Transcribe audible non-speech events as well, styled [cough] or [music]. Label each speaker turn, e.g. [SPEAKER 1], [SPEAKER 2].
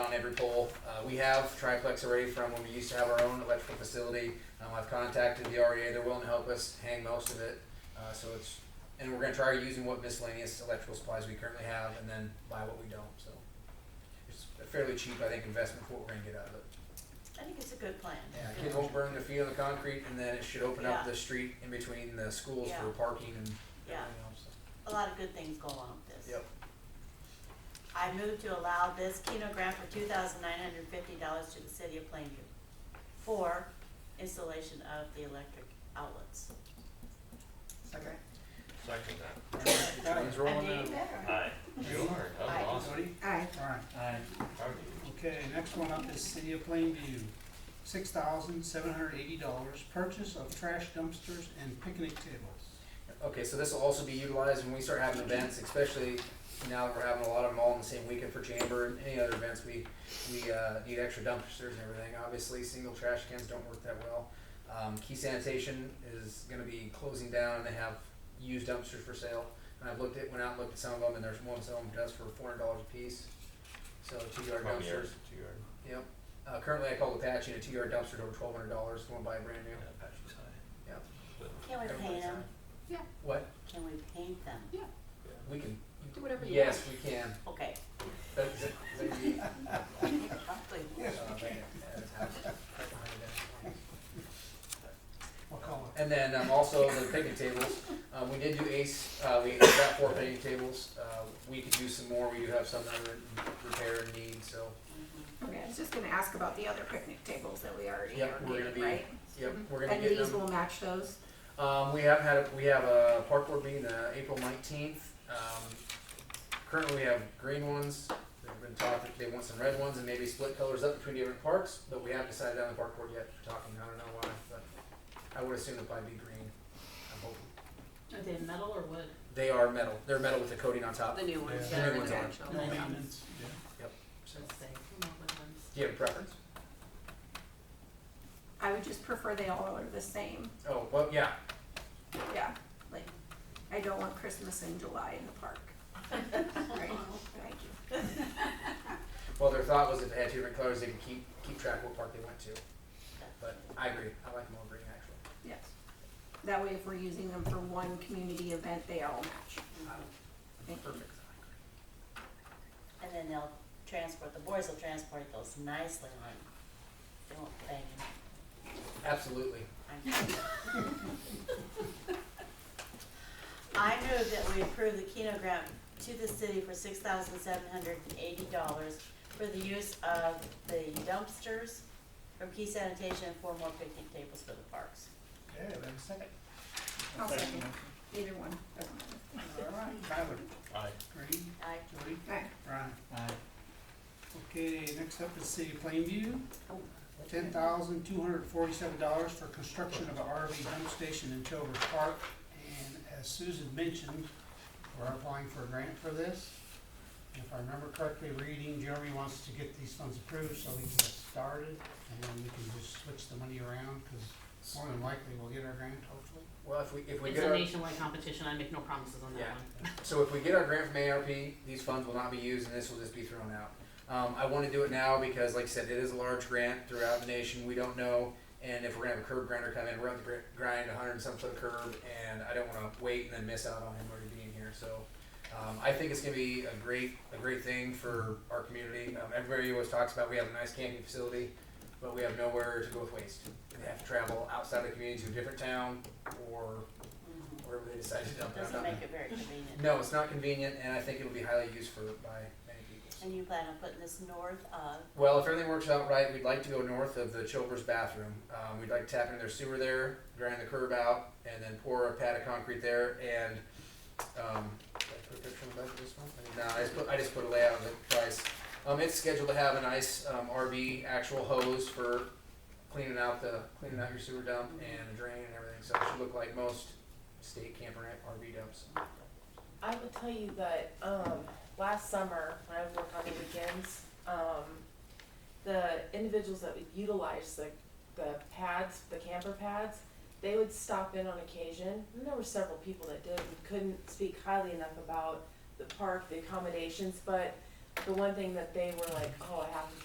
[SPEAKER 1] on every pole. Uh, we have triplex already from when we used to have our own electrical facility. Um, I've contacted the REA, they're willing to help us hang most of it. Uh, so it's, and we're gonna try using what miscellaneous electrical supplies we currently have and then buy what we don't, so. It's a fairly cheap, I think, investment for what we're gonna get out of it.
[SPEAKER 2] I think it's a good plan.
[SPEAKER 1] Yeah, kids won't burn their feet on the concrete and then it should open up the street in between the schools for
[SPEAKER 2] Yeah.
[SPEAKER 1] parking and
[SPEAKER 2] Yeah.
[SPEAKER 1] everything else.
[SPEAKER 2] A lot of good things go along with this.
[SPEAKER 1] Yep.
[SPEAKER 2] I move to allow this Keno grant for two thousand nine hundred fifty dollars to the city of Plainview for installation of the electric outlets.
[SPEAKER 3] Second.
[SPEAKER 4] Second that.
[SPEAKER 1] Trains rolling
[SPEAKER 2] I
[SPEAKER 1] in.
[SPEAKER 2] mean,
[SPEAKER 4] Aye. You are,
[SPEAKER 2] Aye.
[SPEAKER 4] that was awesome.
[SPEAKER 3] Cody?
[SPEAKER 5] Aye.
[SPEAKER 3] All right.
[SPEAKER 6] Aye.
[SPEAKER 4] Howdy.
[SPEAKER 3] Okay, next one up is City of Plainview. Six thousand seven hundred eighty dollars, purchase of trash dumpsters and picnic tables.
[SPEAKER 1] Okay, so this will also be utilized when we start having events, especially now that we're having a lot of them all in the same weekend for chamber and any other events, we, we, uh, need extra dumpsters and everything. Obviously, single trash cans don't work that well. Um, Key Sanitation is gonna be closing down and they have used dumpsters for sale. And I've looked at, went out and looked at some of them and there's one selling them just for four hundred dollars a piece. So two yard
[SPEAKER 4] Come on, yours,
[SPEAKER 1] dumpsters,
[SPEAKER 4] two yard.
[SPEAKER 1] yep. Uh, currently I call Apache and a two yard dumpster's over twelve hundred dollars, going to buy a brand
[SPEAKER 4] Yeah,
[SPEAKER 1] new.
[SPEAKER 4] Apache's high.
[SPEAKER 1] Yeah.
[SPEAKER 4] But,
[SPEAKER 2] Can we paint
[SPEAKER 1] Everybody's
[SPEAKER 2] them?
[SPEAKER 1] on. What?
[SPEAKER 2] Can we paint them?
[SPEAKER 4] yeah.
[SPEAKER 1] We can.
[SPEAKER 5] Do whatever you
[SPEAKER 1] Yes, we can.
[SPEAKER 2] Okay.
[SPEAKER 1] That- that- uh, that'd be-
[SPEAKER 2] Probably.
[SPEAKER 3] Uh, We'll call
[SPEAKER 1] And then um, also the picnic tables. Uh, we did do ace. Uh, we got four picnic tables. Uh, we could do some more. We do have some that are in repair and need. So
[SPEAKER 5] Okay, I was just gonna ask about the other picnic tables that we already
[SPEAKER 1] Yep, we're gonna
[SPEAKER 5] ordered,
[SPEAKER 1] be-
[SPEAKER 5] right?
[SPEAKER 1] yep, we're gonna
[SPEAKER 5] Mm-hmm. And
[SPEAKER 1] get
[SPEAKER 5] these
[SPEAKER 1] them.
[SPEAKER 5] will match those?
[SPEAKER 1] Um, we have had a, we have a park board meeting uh, April nineteenth. Um, currently, we have green ones. They've been taught that they want some red ones and maybe split colors up between different parks, but we haven't decided on the park board yet. We're talking. I don't know why, but I would assume it'd probably be green. I'm hoping.
[SPEAKER 7] Are they metal or wood?
[SPEAKER 1] They are metal. They're metal with the coating on top.
[SPEAKER 5] The new
[SPEAKER 3] ones,
[SPEAKER 1] yeah, the new ones are.
[SPEAKER 3] it. No maintenance, yeah.
[SPEAKER 1] So,
[SPEAKER 7] Let's say, come up with ones.
[SPEAKER 1] do you have a preference?
[SPEAKER 5] I would just prefer they all are the same,
[SPEAKER 1] Oh, well, yeah.
[SPEAKER 5] yeah, like, I don't want Christmas in July in the park. Right, thank you.
[SPEAKER 1] Well, their thought was if they had two different colors, they could keep keep track of what park they went to. But I agree. I like them all green actually.
[SPEAKER 5] Yes. That way if we're using them for one community event, they all match. Thank you.
[SPEAKER 1] Perfect.
[SPEAKER 2] And then they'll transport, the boys will transport those nicely on. They won't bang them.
[SPEAKER 1] Absolutely.
[SPEAKER 2] [laughs] I move that we approve the Keno grant to the city for six thousand seven hundred and eighty dollars for the use of the dumpsters from Key Sanitation and four more picnic tables for the parks.
[SPEAKER 3] Okay, we have a second.
[SPEAKER 5] I'll
[SPEAKER 3] Second
[SPEAKER 5] second. Either one, doesn't matter.
[SPEAKER 3] motion. All right, Tyler,
[SPEAKER 4] Aye.
[SPEAKER 3] Green,
[SPEAKER 2] I,
[SPEAKER 3] Jody,
[SPEAKER 5] Aye.
[SPEAKER 3] Brian.
[SPEAKER 6] Aye.
[SPEAKER 3] Okay, next up is City of Plainview.
[SPEAKER 2] Oh.
[SPEAKER 3] Ten thousand two hundred forty-seven dollars for construction of an RV dump station in Tober Park. And as Susan mentioned, we're applying for a grant for this. If I remember correctly, reading, Jeremy wants to get these funds approved so we can get started. And then we can just switch the money around, because more than likely we'll get our grant hopefully.
[SPEAKER 1] Well, if we if we
[SPEAKER 7] It's
[SPEAKER 1] get
[SPEAKER 7] a
[SPEAKER 1] our,
[SPEAKER 7] nationwide competition, I make no promises on that
[SPEAKER 1] Yeah.
[SPEAKER 7] one.
[SPEAKER 1] so if we get our grant from ARP, these funds will not be used and this will just be thrown out. Um, I want to do it now because, like I said, it is a large grant throughout the nation. We don't know, and if we're gonna have a curb grinder come in, we're gonna have to gr- grind 100 and some foot of curb, and I don't want to wait and then miss out on him already being here. So. Um, I think it's going to be a great, a great thing for our community. Um, everybody always talks about we have a nice camping facility, but we have nowhere to go with waste. They have to travel outside the community to a different town or wherever they decide to dump it. I'm
[SPEAKER 2] mm, doesn't
[SPEAKER 1] not-
[SPEAKER 2] make it very convenient.
[SPEAKER 1] no, it's not convenient, and I think it'll be highly used for by many people.
[SPEAKER 2] And you plan on putting this north of,
[SPEAKER 1] Well, if everything works out right, we'd like to go north of the Chilvers bathroom. Um, we'd like to tap into their sewer there, grind the curb out, and then pour a pad of concrete there. And um, did I put a picture on the back of this one? No, I just put I just put a layout of the price. Um, it's scheduled to have a nice um, RV actual hose for cleaning out the cleaning out your sewer dump and a drain and everything. So it should look like most state camper RV dumps.
[SPEAKER 8] I will tell you that um, last summer, when I was working on the weekends, um, the individuals that would utilize the, the pads, the camper pads, they would stop in on occasion. And there were several people that did and couldn't speak highly enough about the park, the accommodations, but the one thing that they were like, oh, I have to